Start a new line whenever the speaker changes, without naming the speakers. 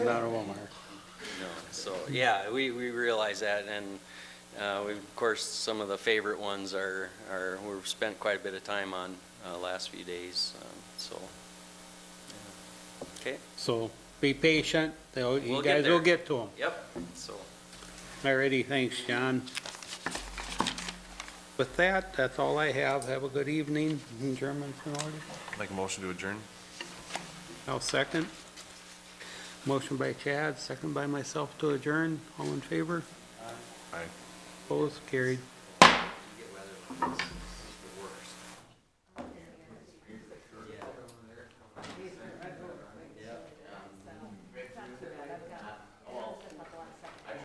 out of Walmart.
No, So, yeah, we, we realize that, and uh, we, of course, some of the favorite ones are, are, we've spent quite a bit of time on uh, last few days, um, so. Okay,
So be patient, they'll, you
We'll get
guys will
there.
get to them.
yep, so,
Alrighty, thanks, John. With that, that's all I have. Have a good evening, German in order.
Make a motion to adjourn?
I'll second. Motion by Chad, second by myself to adjourn. All in favor?
Aye.
Opposed? Carried.
you get weather.